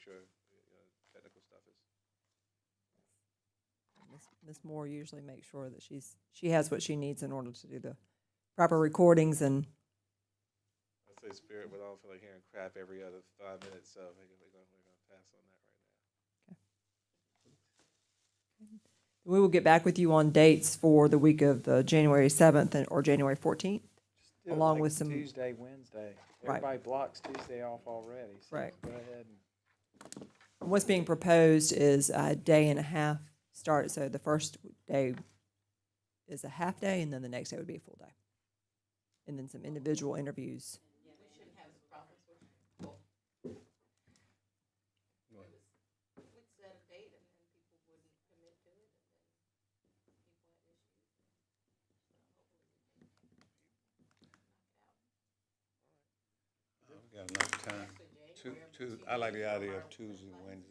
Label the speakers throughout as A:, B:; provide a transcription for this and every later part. A: sure you know, technical stuff is.
B: Ms. Ms. Moore usually makes sure that she's, she has what she needs in order to do the proper recordings and,
A: I say spirit, but I don't feel like hearing crap every other five minutes, so I think we're gonna, we're gonna pass on that right now.
B: we will get back with you on dates for the week of the January seventh and, or January fourteenth.
C: Just do it
B: along
C: like
B: with some-
C: Tuesday, Wednesday.
B: Right.
C: Everybody blocks Tuesday off already, so
B: Right.
C: go ahead and.
B: What's being proposed is a day and a half start, so the first day is a half day, and then the next day would be a full day. And then some individual interviews.
D: We got enough time. Two, two, I like the idea of Tuesday, Wednesday.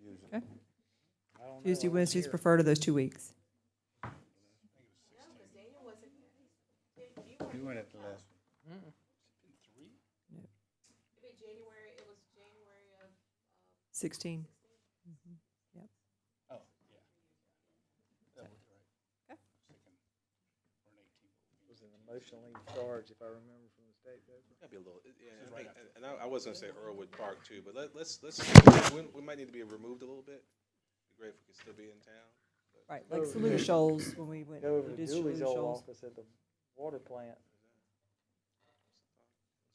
D: Usually,
C: I don't know,
B: Tuesday,
C: I'm
B: Wednesdays
C: here.
B: prefer to those two weeks.
D: you went at the last,
B: Sixteen.
C: It was an emotionally charged, if I remember from the state. paper.
A: That'd be a little, yeah, I think- and- and I, I was gonna say Earlwood Park too, but let, let's, let's, we, we might need to be removed a little bit. Be great if we could still be in town.
B: Right, like Saluda Shoals, when we went,
C: Go over
B: we
C: to
B: did
C: Dooley's
B: Saluda
C: old
B: Shoals.
C: office at the water plant.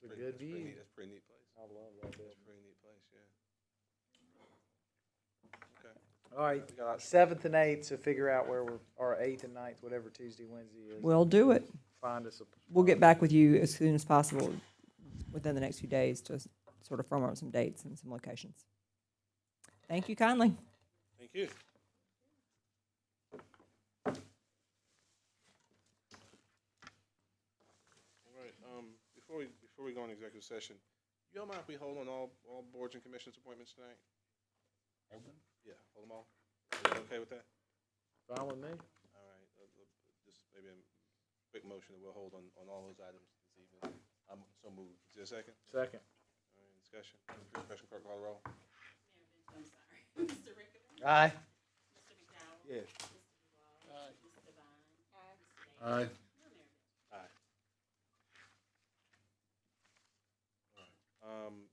C: It's a
A: Pretty-
C: good
A: that's pretty
C: view.
A: neat- That's a pretty neat place.
C: I love that
A: That's
C: building.
A: a pretty neat place, yeah. Okay.
C: All right,
A: We got-
C: seventh and eighth, so figure out where we're, or eighth and ninth, whatever Tuesday, Wednesday is.
B: We'll do it.
C: Find us a.
B: We'll get back with you as soon as possible, within the next few days, to s- sort of firm up some dates and some locations. Thank you kindly.
A: Thank you. All right, um, before we, before we go on executive session, you don't mind if we hold on all, all boards and commissions appointments tonight? Yeah, hold them all. Is that okay with that?
C: Fine with me.
A: All right, uh, uh, just maybe a quick motion that we'll hold on, on all those items this evening. I'm so moved. Is there a second?
C: Second.
A: All right, discussion. Question, clerk call the roll.
C: Aye.
D: yes.
A: Um,